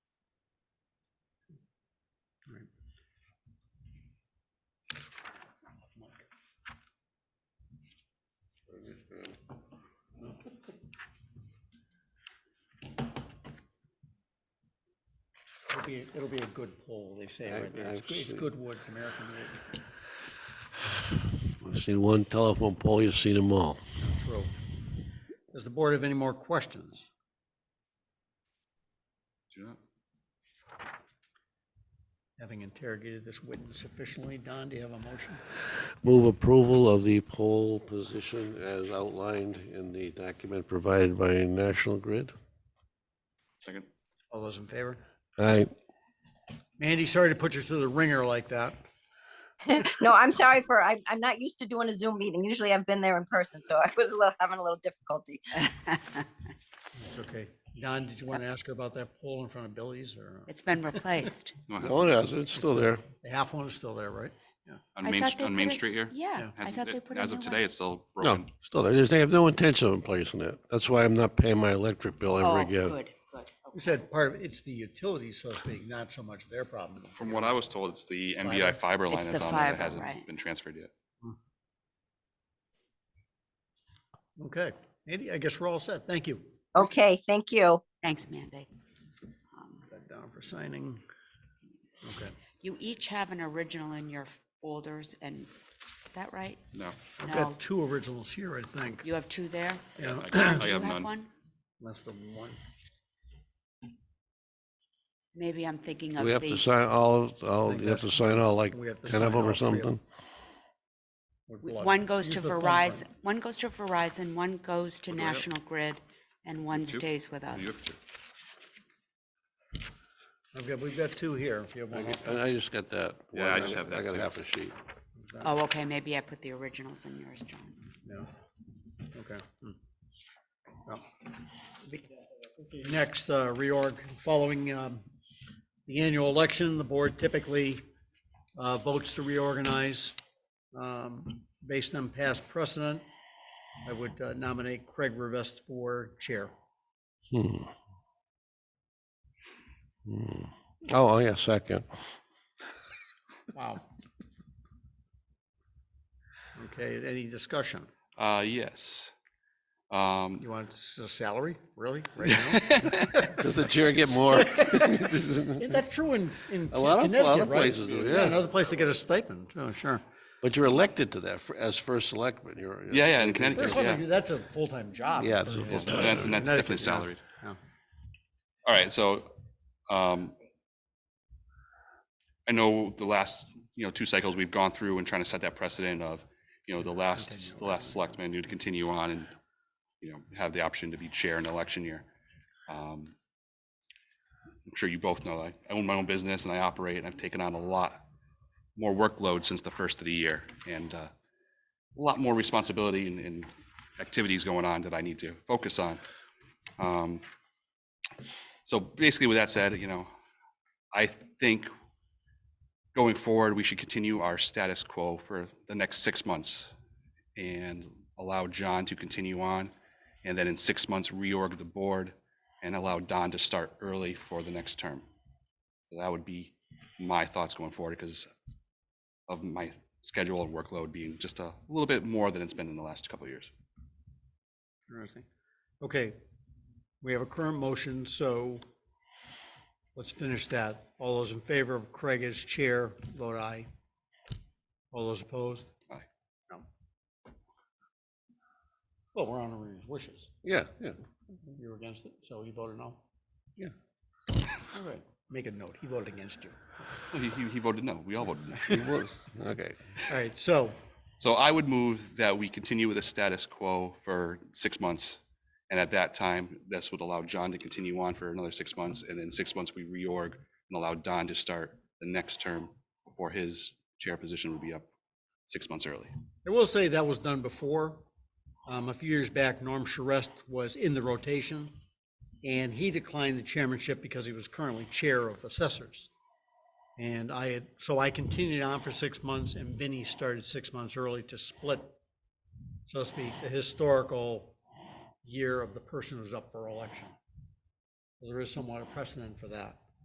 It'll be, it'll be a good poll, they say. right now. It's I've good- It's seen- good wood, it's American wood. I've seen one telephone pole, you've seen them all. True. Does the board have any more questions? Having interrogated this witness sufficiently, Don, do you have a motion? Move approval of the pole position as outlined in the document provided by National Grid. Second. All those in favor? Aye. Mandy, sorry to put you through the ringer like that. No, I'm sorry for, I'm, I'm not used to doing a Zoom meeting. Usually I've been there in person, so I was a little, having a little difficulty. It's okay. Don, did you want to ask her about that pole in front of Billy's or It's been replaced. No, it Oh, hasn't. yes, it's still there. the half one is still there, right? On I Main, thought St- they on put Main it- Street here? Yeah, I Hasn't- thought they it- put a As of new today, one. it's still No, broken. still there. They just- They have no intention of placing it. That's why I'm not paying my electric bill Oh, every year. good, good. You said part of, it's the utilities, so to speak, not so much their problem. From what I was told, it's the NBI fiber line It's that's the on there that fiber, hasn't right. been transferred yet. Okay, Mandy, I guess we're all set. Thank you. Okay, thank you. Thanks, Mandy. Um, That down for signing. Okay. You each have an original in your folders and, is that right? No, I've No, got two originals here, I think. you have two there? Yeah, I got- Do I you have have none. one? that's the one. Maybe I'm thinking of We have to the, sign all, of- all, think you have to that's- sign all like we have to 10 of sign them all or three of something. With blood. one goes Use to the Verizon, thumbprint. one goes to Verizon, one goes to What do I have? National Grid, and one Two? stays with you us. have to. I've got, we've got two here. If you have one, else. And I just got that. Yeah, one. I just have that I got too. half a sheet. Oh, okay, maybe I put the originals in yours, John. yeah, okay. Hmm. Yeah. Next, uh, reorg, following, um, the annual election, the board typically, uh, votes to reorganize, um, based on past precedent. I would uh, nominate Craig Revest for chair. Hmm. Hmm. Oh, oh, yeah, second. Wow. Okay, any discussion? Uh, yes. Um, You want s- a salary, really? right now? Does the chair get more? Yeah, That's true in, in A lot of- a lot Connecticut, of right? places do, yeah. Another place to get a stipend, oh, sure. But you're elected to that fir- as first selectman. You're. Yeah, yeah, in Connecticut, First yeah. one, I do- that's a full-time job. Yeah, it's a Yeah. full-time and that- and that's definitely Connecticut, yeah. salaried. Yeah. All right, so, um, I know the last, you know, two cycles we've gone through and trying to set that precedent of, you know, the last, the last selectman to continue on and, you know, have the option to be chair in election year. Um, I'm sure you both know, I, I own my own business and I operate and I've taken on a lot more workload since the first of the year and, uh, a lot more responsibility and, and activities going on that I need to focus on. Um, so basically, with that said, you know, I think going forward, we should continue our status quo for the next six months and allow John to continue on. And then in six months, reorg the board and allow Don to start early for the next term. So that would be my thoughts going forward because of my schedule and workload being just a little bit more than it's been in the last couple of years. Interesting. Okay, we have a current motion, so let's finish that. All those in favor of Craig as chair, vote aye. All those opposed? Aye. No. Well, we're honoring his wishes. Yeah, yeah. You were against it, so you voted no? Yeah. All right, make a note, he voted against you. He, he- he voted no. We all voted no. You would. Okay. All right, so, So I would move that we continue with the status quo for six months. And at that time, this would allow John to continue on for another six months. And then six months, we reorg and allow Don to start the next term before his chair position would be up six months early. I will say that was done before. Um, a few years back, Norm Charest was in the rotation, and he declined the chairmanship because he was currently chair of assessors. And I had, so I continued on for six months, and Vinny started six months early to split, so to speak, the historical year of the person who's up for election. There is somewhat a precedent for that.